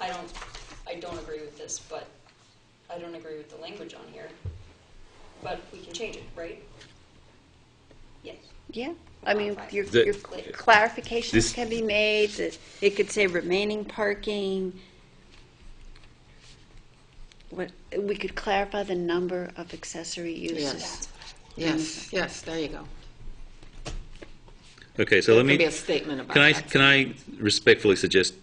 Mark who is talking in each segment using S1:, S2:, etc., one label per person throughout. S1: I don't, I don't agree with this, but I don't agree with the language on here. But we can change it, right? Yes.
S2: Yeah, I mean, your,
S1: The-
S2: your
S3: This-
S2: clarifications can be made, that it could say remaining parking. What, we could clarify the number of accessory uses.
S4: Yes. Yes, yes, there you go.
S3: Okay, so let me,
S4: Maybe a statement about
S3: can I,
S4: that.
S3: can I respectfully suggest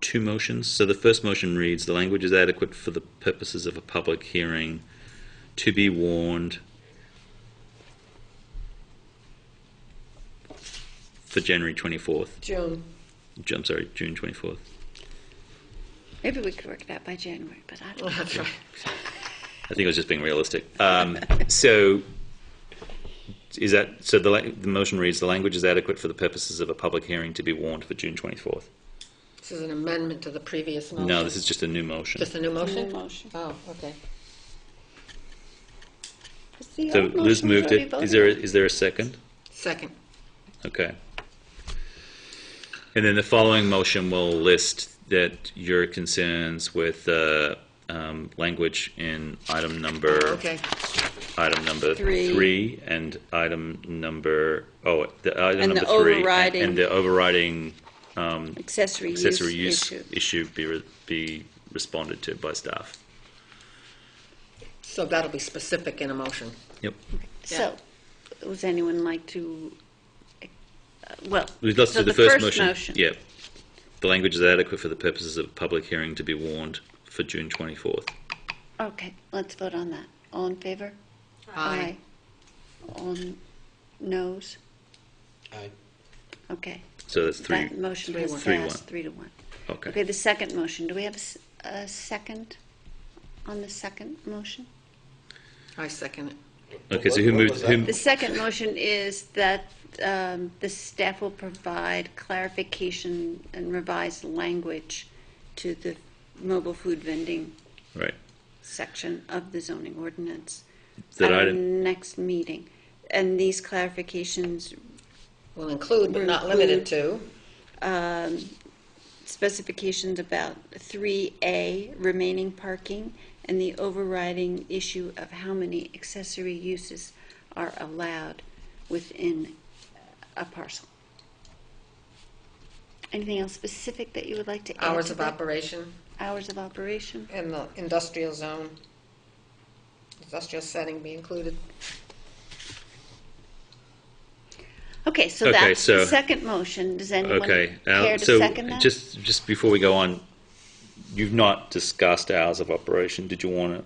S3: two motions? So the first motion reads, "The language is adequate for the purposes of a public hearing to be warned for January 24th."
S4: June.
S3: Ju- I'm sorry, June 24th.
S2: Maybe we could work that by January, but I don't,
S4: That's right.
S3: I think I was just being realistic. Um, so, is that so? The, la- the motion reads: the language is adequate for the purposes of a public hearing to be warned for June twenty fourth.
S4: This is an amendment to the previous motion.
S3: No, this is just a new motion.
S4: Just a new motion?
S2: New motion.
S4: Oh, okay.
S2: 'cause the
S3: so
S2: old
S3: Liz
S2: motion
S3: moved
S2: already
S3: it.
S2: voted
S3: Is there a,
S2: on.
S3: is there a second?
S4: Second.
S3: Okay. And then the following motion will list that your concerns with uh, um, language in item number
S4: Okay.
S3: item number
S2: Three.
S3: and item number oh the item
S2: And the
S3: number three
S2: overriding-
S3: and, and the overriding
S2: Accessory use
S3: accessory use
S2: issue.
S3: issue be re- be responded to by staff.
S4: So that'll be specific in a motion.
S3: Yep.
S2: So, would anyone like to, uh, well,
S3: We've lost
S2: so
S3: to the,
S2: the
S3: first,
S2: first
S3: motion.
S2: motion.
S3: Yep. The language is adequate for the purposes of a public hearing to be warned for June 24th.
S2: okay, let's vote on that. All in favor?
S4: Aye.
S2: All n- noes?
S5: Aye.
S2: Okay.
S3: So that's three.
S2: That motion
S4: Three
S2: has
S4: one.
S3: Three
S2: passed
S3: one.
S2: three to one.
S3: Okay.
S2: Okay, the second motion, do we have a s- a second on the second motion?
S4: I second it.
S3: Okay, so
S5: What-
S3: who
S5: what
S3: moved
S5: was
S3: who
S5: that?
S2: The second motion is that um, the staff will provide clarification and revised language to the mobile food vending
S3: right.
S2: section of the zoning ordinance at
S3: That
S2: our
S3: item
S2: next meeting. And these clarifications
S4: Will include, but not limited to,
S2: specifications about 3A remaining parking and the overriding issue of how many accessory uses are allowed within a parcel. Anything else specific that you would like to add?
S4: hours
S2: to
S4: of
S2: that?
S4: operation
S2: Hours of operation.
S4: in the industrial zone, industrial setting be included.
S2: Okay, so
S3: Okay,
S2: that's the
S3: so-
S2: second motion. Does anyone
S3: Okay. Al-
S2: care to
S3: so
S2: second that?
S3: just just before we go on, you've not discussed hours of operation. Did you want to?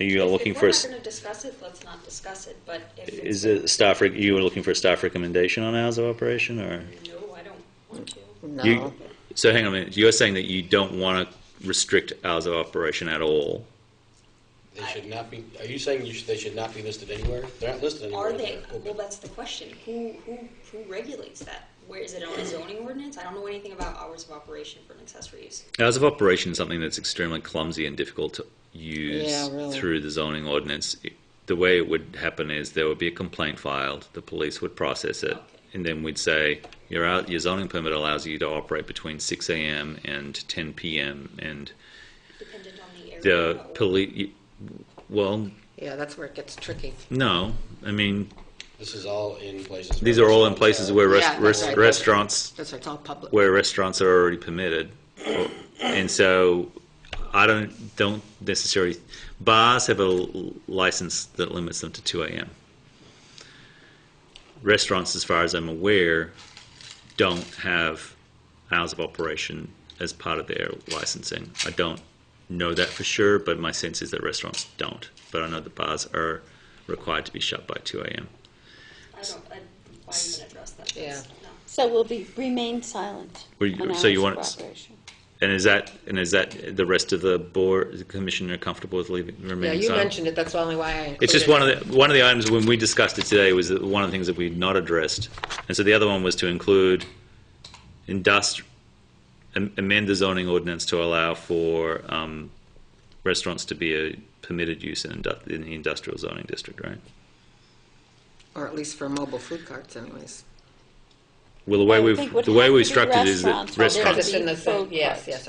S3: Are you looking for a s-
S1: If we're not gonna discuss it, let's not discuss it, but if it's.
S3: is it staff? Rec- you were looking for a staff recommendation on hours of operation, or
S1: No, I don't want to.
S4: No.
S3: you, so? Hang on a minute. You're saying that you don't want to restrict hours of operation at all.
S5: They should not be, are you saying you should, they should not be listed anywhere? They're not listed anywhere.
S1: Are
S5: in
S1: they,
S5: the open.
S1: well, that's the question, who, who, who regulates that? Where, is it on a zoning ordinance? I don't know anything about hours of operation for an accessory use.
S3: Hours of operation is something that's extremely clumsy and difficult to use
S4: Yeah, really.
S3: through the zoning ordinance. It- The way it would happen is there would be a complaint filed, the police would process it,
S1: Okay.
S3: and then we'd say your out, your zoning permit allows you to operate between 6 a.m. and 10 p.m. and
S1: Dependent on the area.
S3: the
S1: or-
S3: police. Well,
S4: Yeah, that's where it gets tricky.
S3: no, I mean
S5: This is all in places.
S3: these
S5: where
S3: are all in
S5: restaurants
S3: places
S5: are.
S3: where
S4: Yeah,
S3: rest,
S4: that's
S3: rest,
S4: right.
S3: restaurants
S4: That's why it's all public.
S3: where restaurants are already permitted, and so I don't don't necessarily bars have a l- license that limits them to two a.m. Restaurants, as far as I'm aware, don't have hours of operation as part of their licensing. I don't know that for sure, but my sense is that restaurants don't. But I know the bars are required to be shut by two a.m.
S1: I don't, I, why even address that?
S4: Yeah.
S1: That's- no.
S2: So we'll be, remain silent
S3: Well, you-
S2: on
S3: so you
S2: hours of
S3: want it s-
S2: operation.
S3: And is that and is that the rest of the board the commissioner comfortable with leaving remaining
S4: Yeah, you
S3: silent?
S4: mentioned it, that's the only why I included it.
S3: It's just one of the one of the items when we discussed it today was that one of the things that we had not addressed, and so the other one was to include industri- am- amend the zoning ordinance to allow for um, restaurants to be a permitted use in, indu- in the industrial zoning district, right?
S4: Or at least for mobile food carts anyways.
S3: Well, the way
S2: I would
S3: we've
S2: think would
S3: the way
S2: have
S3: we
S2: to be
S3: structured it is
S2: restaurants,
S3: that
S2: although
S3: restaurants
S2: Because it's in the food
S4: Yes,
S2: court.
S4: yes,